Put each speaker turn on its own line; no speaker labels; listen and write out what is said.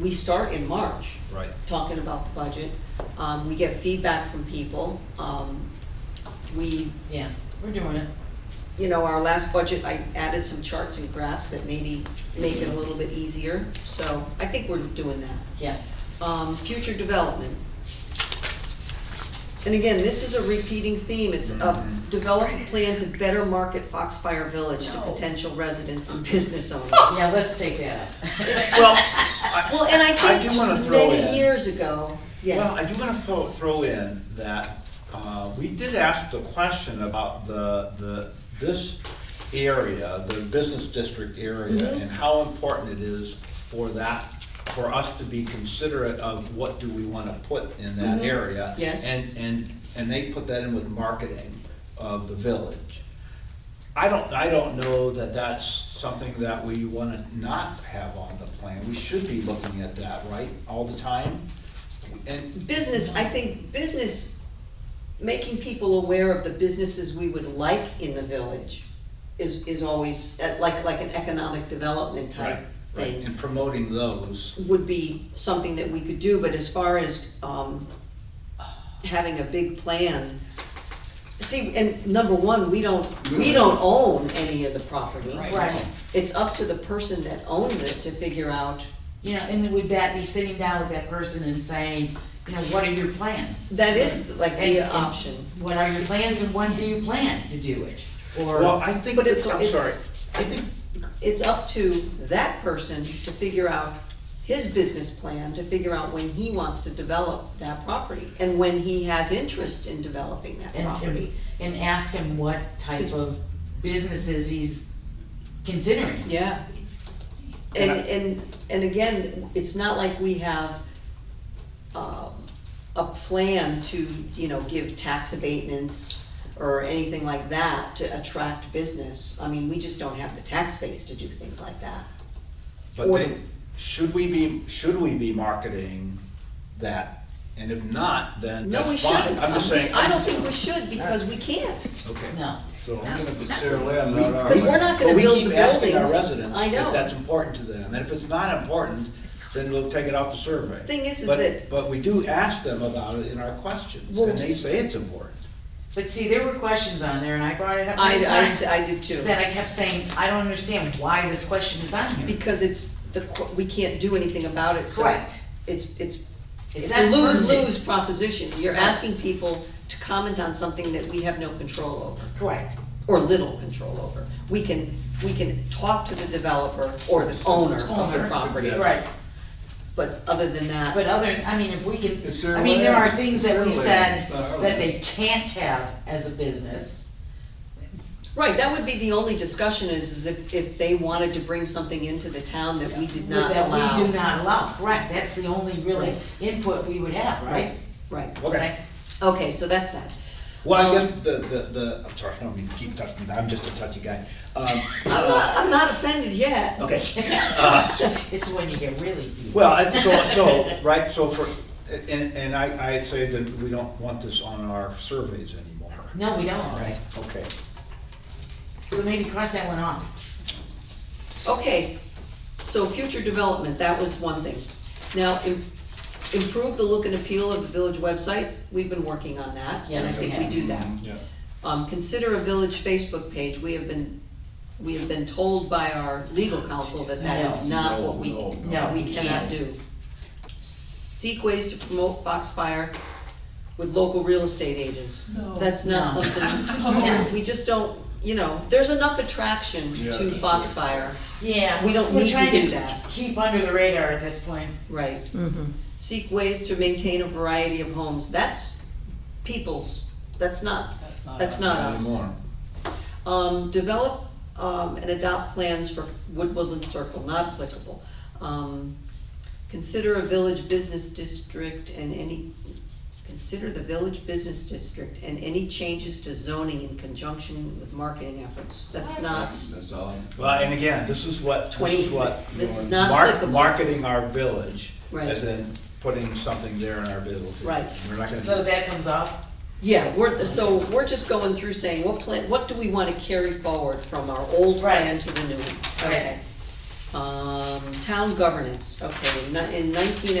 we start in March.
Right.
Talking about the budget, um, we get feedback from people, um, we,
Yeah, we're doing it.
you know, our last budget, I added some charts and graphs that maybe make it a little bit easier, so I think we're doing that.
Yeah.
Um, future development. And again, this is a repeating theme, it's a
Mm-hmm.
develop a plan to better market Foxfire Village to
No.
potential residents and business owners.
Yeah, let's take that out.
Well,
Well,
I,
and I
I do wanna
think
throw in.
many years ago, yes.
well, I do wanna throw, throw in that, uh, we did ask the question about the, the, this area, the business district area,
Mm-hmm.
and how important it is for that, for us to be considerate of what do we wanna put in that
Mm-hmm.
area.
Yes.
And, and, and they put that in with marketing of the village. I don't, I don't know that that's something that we wanna not have on the plan, we should be looking at that, right, all the time? And,
business, I think business, making people aware of the businesses we would like in the village is, is always, uh, like, like an economic development type
right, right,
thing.
and promoting those,
Would be something that we could do, but as far as, um, having a big plan. See, and number one, we don't, we don't own any of the property.
Right. Right.
It's up to the person that owns it to figure out,
You know, and then would that be sitting down with that person and saying, you know, what are your plans?
that is like
And-
the
and
option.
What are your plans and when do you plan to do it? Or,
well, I think,
But it's-
I'm
it's-
sorry, I think,
it's up to that person to figure out his business plan, to figure out when he wants to develop that property, and when he has interest in developing that
and, and-
property.
and ask him what type of businesses he's considering.
Yeah. And, and, and again, it's not like we have, um, a plan to, you know, give tax abatements or anything like that to attract business. I mean, we just don't have the tax base to do things like that.
but
or-
they, should we be, should we be marketing that? And if not, then
No, we
that's
shouldn't.
fine, I'm just saying.
I don't think we should, because we can't.
Okay.
No.
So I'm gonna be Sarah Lee, I'm not
Because we're
our,
not
But
gonna
we
build the
keep asking our
buildings.
residents
I
if
know.
that's important to them, and if it's not important, then we'll take it off the survey.
Thing is, is
But-
that-
But we do ask them about it in our questions,
Well-
and they say it's important.
But see, there were questions on there and I brought it up
I,
many
I
times.
s- I did too,
That I kept saying, I don't understand why this question is on here.
because it's the, qu- we can't do anything about it, so.
Correct.
It's, it's,
It's
it's a
not pertinent.
lose-lose proposition. You're asking people to comment on something that we have no control over,
Correct.
or little control over. We can, we can talk to the developer or the owner of the
Owner.
property,
Right.
but other than
But
that,
other, I mean, if we
It's
can,
their
I Uh, mean, there are
land.
things that we
It's their
said
land. Not our
that they can't have as a business.
right, that would be the only discussion is, is if, if they wanted to bring something into the town that we did not
That
allow.
we do not allow, correct, that's the only really input we would have, right?
Right,
Okay,
okay, so that's that.
well, I guess the, the, the, I'm sorry, I don't mean to keep touching, that. I'm just a touchy guy. Um,
I'm
uh,
not, I'm not offended yet.
Okay,
It's when you get really deep.
well, I- so, so, right, so for, and, and I, I'd say that we don't want this on our surveys anymore.
No, we don't,
Right, okay.
so maybe cross that one off.
Okay, so future development, that was one thing. Now, im- improve the look and appeal of the village website, we've been working on that. and
Yes, we
I think
have.
we do that.
yeah.
Um, consider a village Facebook page, we have been, we have been told by our legal counsel that that is
No.
not what we,
No,
no, no.
we
We
cannot
can't.
do. Seek ways to promote Foxfire with local real estate agents. That's not
No.
something, we just don't, you know, there's enough attraction
Yeah,
to
that's it.
Foxfire.
Yeah.
We don't
we're
need to
trying
do that.
Keep under the radar at this point.
Right. Seek ways to maintain a variety of homes, that's people's, that's not, that's not
Not
us.
anymore.
Um, develop, um, and adopt plans for Wood Woodland Circle, not applicable. Um, consider a village business district and any, consider the village business district and any changes to zoning in conjunction with marketing efforts, that's not,
That's all.
Well, and again, this is what, this
Twenty.
is what.
This is not
mark-
applicable.
Marketing our village,
Right.
as in putting something there in our village.
Right.
We're not gonna,
So
do-
that comes off,
Yeah, we're, so we're just going through saying, what plan, what do we wanna carry forward from our old plan
Right.
to the new one?
okay.
Um, town governance, okay, in nineteen